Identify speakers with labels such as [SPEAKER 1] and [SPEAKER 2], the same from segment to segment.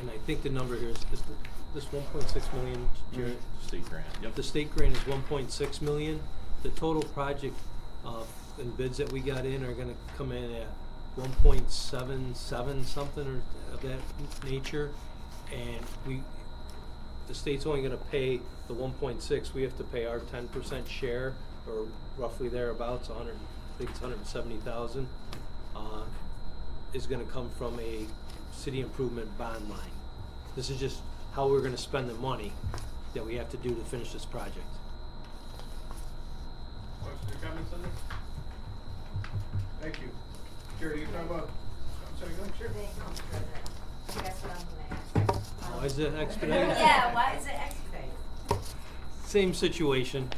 [SPEAKER 1] and I think the number here is, is th- this one point six million, Jerry?
[SPEAKER 2] State grant, yep.
[SPEAKER 1] The state grant is one point six million. The total project, uh, and bids that we got in are gonna come in at one point seven seven something or of that nature. And we, the state's only gonna pay the one point six, we have to pay our ten percent share, or roughly thereabouts, a hundred, I think it's hundred and seventy thousand. Uh, is gonna come from a city improvement bond line. This is just how we're gonna spend the money that we have to do to finish this project.
[SPEAKER 3] Questions or comments on this? Thank you. Jerry, you talking about, I'm sorry, go ahead, sure.
[SPEAKER 4] They come through it. That's what I'm gonna ask.
[SPEAKER 1] Why is it expedited?
[SPEAKER 4] Yeah, why is it expedited?
[SPEAKER 1] Same situation,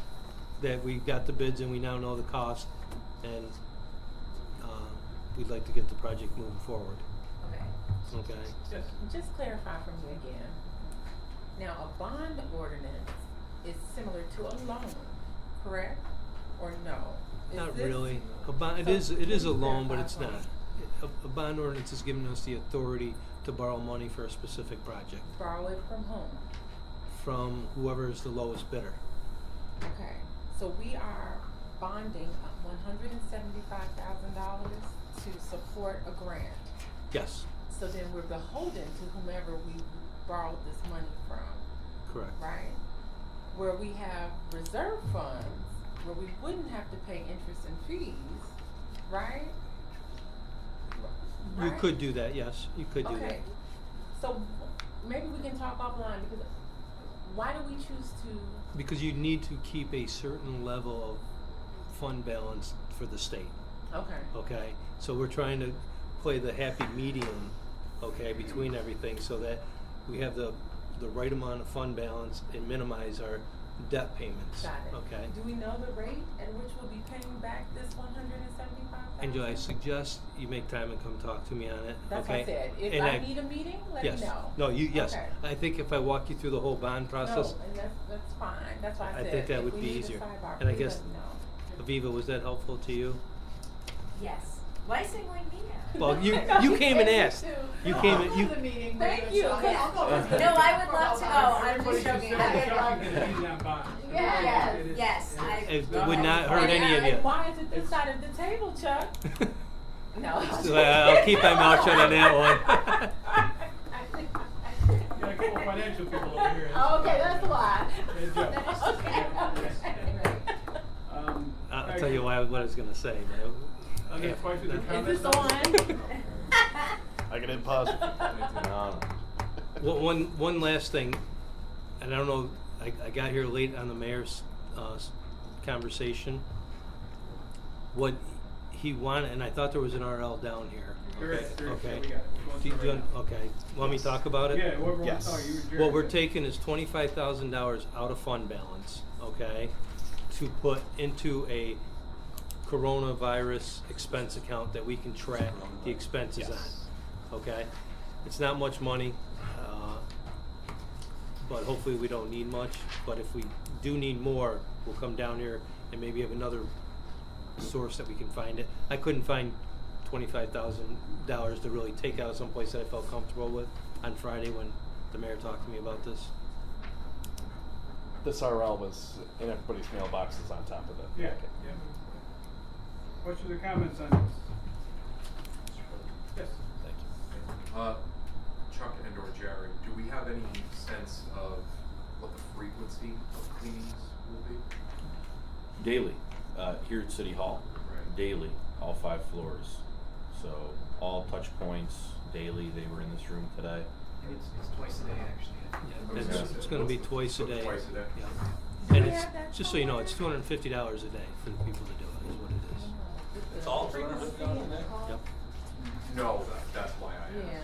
[SPEAKER 1] that we got the bids and we now know the cost, and, uh, we'd like to get the project moving forward,
[SPEAKER 5] Okay,
[SPEAKER 1] okay?
[SPEAKER 3] Yes.
[SPEAKER 5] just clarify for me again. Now, a bond ordinance is similar to a loan, correct? Or no? Is
[SPEAKER 1] Not
[SPEAKER 5] this-
[SPEAKER 1] really, a bond, it
[SPEAKER 5] So,
[SPEAKER 1] is, it is a
[SPEAKER 5] can you
[SPEAKER 1] loan, but
[SPEAKER 5] clarify
[SPEAKER 1] it's
[SPEAKER 5] for me?
[SPEAKER 1] not. A, a bond ordinance is giving us the authority to borrow money for a specific project
[SPEAKER 5] Borrow it from whom?
[SPEAKER 1] from whoever is the lowest bidder.
[SPEAKER 5] Okay, so we are bonding one hundred and seventy-five thousand dollars to support a grant.
[SPEAKER 1] Yes,
[SPEAKER 5] So then we're beholden to whomever we borrowed this money from.
[SPEAKER 1] correct.
[SPEAKER 5] right? Where we have reserve funds, where we wouldn't have to pay interest and fees, right?
[SPEAKER 1] You
[SPEAKER 5] Right?
[SPEAKER 1] could do that, yes, you could do that.
[SPEAKER 5] Okay, so maybe we can talk offline because why do we choose to,
[SPEAKER 1] Because you need to keep a certain level of fund balance for the state,
[SPEAKER 5] okay,
[SPEAKER 1] okay? So we're trying to play the happy medium, okay, between everything so that we have the, the right amount of fund balance and minimize our debt payments,
[SPEAKER 5] got it.
[SPEAKER 1] okay?
[SPEAKER 5] Do we know the rate at which we'll be paying back this one hundred and seventy-five thousand?
[SPEAKER 1] And do I suggest you make time and come talk to me on it, okay?
[SPEAKER 5] That's what I said, if
[SPEAKER 1] And
[SPEAKER 5] I need a meeting, let me know.
[SPEAKER 1] Yes, no, you, yes,
[SPEAKER 5] Okay.
[SPEAKER 1] I think if I walk you through the whole bond process,
[SPEAKER 5] No, and that's, that's fine, that's why I
[SPEAKER 1] I
[SPEAKER 5] said,
[SPEAKER 1] think that
[SPEAKER 5] if
[SPEAKER 1] would
[SPEAKER 5] we
[SPEAKER 1] be
[SPEAKER 5] need a
[SPEAKER 1] easier.
[SPEAKER 5] sidebar,
[SPEAKER 1] And I
[SPEAKER 5] please let
[SPEAKER 1] guess
[SPEAKER 5] me know.
[SPEAKER 1] Aviva, was that helpful to you?
[SPEAKER 4] Yes. Why is it going me
[SPEAKER 1] Well, you-
[SPEAKER 5] No,
[SPEAKER 1] you came and
[SPEAKER 5] said
[SPEAKER 1] asked.
[SPEAKER 5] too.
[SPEAKER 1] You
[SPEAKER 6] No,
[SPEAKER 1] came
[SPEAKER 6] I'll
[SPEAKER 1] and-
[SPEAKER 6] go
[SPEAKER 1] you-
[SPEAKER 6] to
[SPEAKER 1] Uh-huh.
[SPEAKER 6] the meeting,
[SPEAKER 5] Thank
[SPEAKER 6] but
[SPEAKER 5] you,
[SPEAKER 6] I'll-
[SPEAKER 5] 'cause-
[SPEAKER 6] I'll go with you.
[SPEAKER 4] No, I would love to go.
[SPEAKER 6] I'll-
[SPEAKER 4] I'm
[SPEAKER 3] Everybody
[SPEAKER 4] just
[SPEAKER 3] should
[SPEAKER 4] joking.
[SPEAKER 3] sell the
[SPEAKER 4] I would
[SPEAKER 3] shop
[SPEAKER 4] love.
[SPEAKER 3] and get that bond.
[SPEAKER 5] Yeah.
[SPEAKER 3] Everybody should. It is-
[SPEAKER 4] Yes, I-
[SPEAKER 1] It
[SPEAKER 3] No,
[SPEAKER 1] would
[SPEAKER 3] I-
[SPEAKER 1] not hurt
[SPEAKER 5] And-
[SPEAKER 1] any of
[SPEAKER 5] and
[SPEAKER 1] you.
[SPEAKER 5] Why is it this side of the table, Chuck? No.
[SPEAKER 1] So, uh, I'll keep my mouth shut on that one.
[SPEAKER 3] You gotta call financial people over here.
[SPEAKER 5] Oh,
[SPEAKER 4] Oh,
[SPEAKER 5] Okay, that's why.
[SPEAKER 3] Good job.
[SPEAKER 5] Okay,
[SPEAKER 3] Um,
[SPEAKER 1] I'll
[SPEAKER 3] all
[SPEAKER 1] tell
[SPEAKER 3] right.
[SPEAKER 1] you why, what I was gonna say. but I-
[SPEAKER 3] Other
[SPEAKER 1] yeah,
[SPEAKER 3] questions or
[SPEAKER 1] that-
[SPEAKER 5] okay.
[SPEAKER 3] comments?
[SPEAKER 5] Is this on?
[SPEAKER 2] I can pause. No, no.
[SPEAKER 1] One, one, one last thing, and I don't know, I, I got here late on the mayor's, uh, s- conversation. What he wanted, and I thought there was an RL down here.
[SPEAKER 3] There is, there is, yeah,
[SPEAKER 1] Okay.
[SPEAKER 3] we got it. We're going
[SPEAKER 1] Do you-
[SPEAKER 3] through it
[SPEAKER 1] do you-
[SPEAKER 3] now.
[SPEAKER 1] okay, want me to talk about it?
[SPEAKER 3] Yeah, whoever wants
[SPEAKER 2] Yes.
[SPEAKER 3] to talk, you and Jerry.
[SPEAKER 1] What we're taking is twenty-five thousand dollars out of fund balance, okay, to put into a coronavirus expense account that we can track the expenses
[SPEAKER 2] Yes.
[SPEAKER 1] on, okay? It's not much money, uh, but hopefully we don't need much, but if we do need more, we'll come down here and maybe have another source that we can find it. I couldn't find twenty-five thousand dollars to really take out someplace that I felt comfortable with on Friday when the mayor talked to me about this.
[SPEAKER 2] This RL was in everybody's mailboxes on top of it.
[SPEAKER 3] Yeah, yeah. Questions or comments on this? Yes.
[SPEAKER 2] Thank you.
[SPEAKER 7] Uh, Chuck and or Jerry, do we have any sense of what the frequency of cleanings will be?
[SPEAKER 8] Daily, uh, here at City Hall.
[SPEAKER 7] Right.
[SPEAKER 8] Daily, all five floors. So all touch points daily. They were in this room today.
[SPEAKER 9] It's, it's twice a day, actually. I think.
[SPEAKER 7] Okay.
[SPEAKER 1] It's, it's gonna be twice a
[SPEAKER 7] So
[SPEAKER 1] day.
[SPEAKER 7] twice a day.
[SPEAKER 1] Yeah.
[SPEAKER 5] Do
[SPEAKER 1] And
[SPEAKER 5] we
[SPEAKER 1] it's,
[SPEAKER 5] have that
[SPEAKER 1] just so you know,
[SPEAKER 5] somewhere?
[SPEAKER 1] it's two hundred and fifty dollars a day for the people to do it, is what it is.
[SPEAKER 5] It's
[SPEAKER 8] all frequency going in there?
[SPEAKER 1] Yep.
[SPEAKER 7] No, that, that's why I asked.
[SPEAKER 5] Yeah,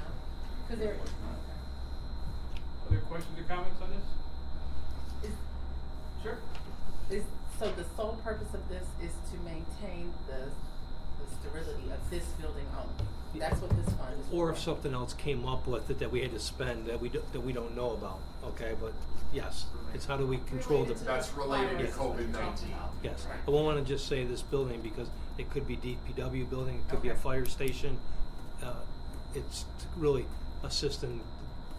[SPEAKER 5] cause there,
[SPEAKER 3] Other questions or comments on this?
[SPEAKER 5] is,
[SPEAKER 3] Sure.
[SPEAKER 5] is, so the sole purpose of this is to maintain the, the sterility of this building only? That's what this fund is for?
[SPEAKER 1] Or if something else came up with it that we had to spend that we, do- that we don't know about, okay, but yes, it's how do we control the.
[SPEAKER 6] Related to
[SPEAKER 7] That's related to
[SPEAKER 6] Virus.
[SPEAKER 7] COVID-19.
[SPEAKER 1] Yes,
[SPEAKER 5] Right.
[SPEAKER 1] I won't wanna just say this building because it could be DPW building, it could be a
[SPEAKER 5] Okay.
[SPEAKER 1] fire station. Uh, It's to really assist in